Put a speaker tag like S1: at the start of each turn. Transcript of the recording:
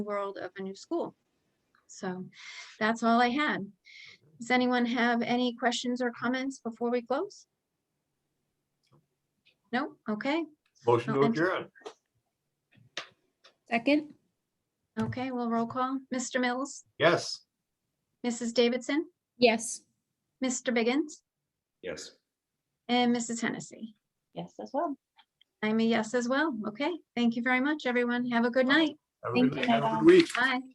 S1: world of a new school. So that's all I had. Does anyone have any questions or comments before we close? No? Okay,
S2: Oh,
S3: Motion to
S1: No, and-
S3: adjourn.
S2: Second,
S1: okay, well, roll call. Mr. Mills,
S3: Yes.
S1: Mrs. Davidson,
S2: yes.
S1: Mr. Biggins,
S3: Yes.
S1: and Mrs. Hennessy.
S2: Yes, as well.
S1: I'm a yes as well. Okay, thank you very much, everyone. Have a good night.
S3: Have a good
S2: Thank you,
S3: have a
S2: Madam.
S3: good week.
S1: Bye.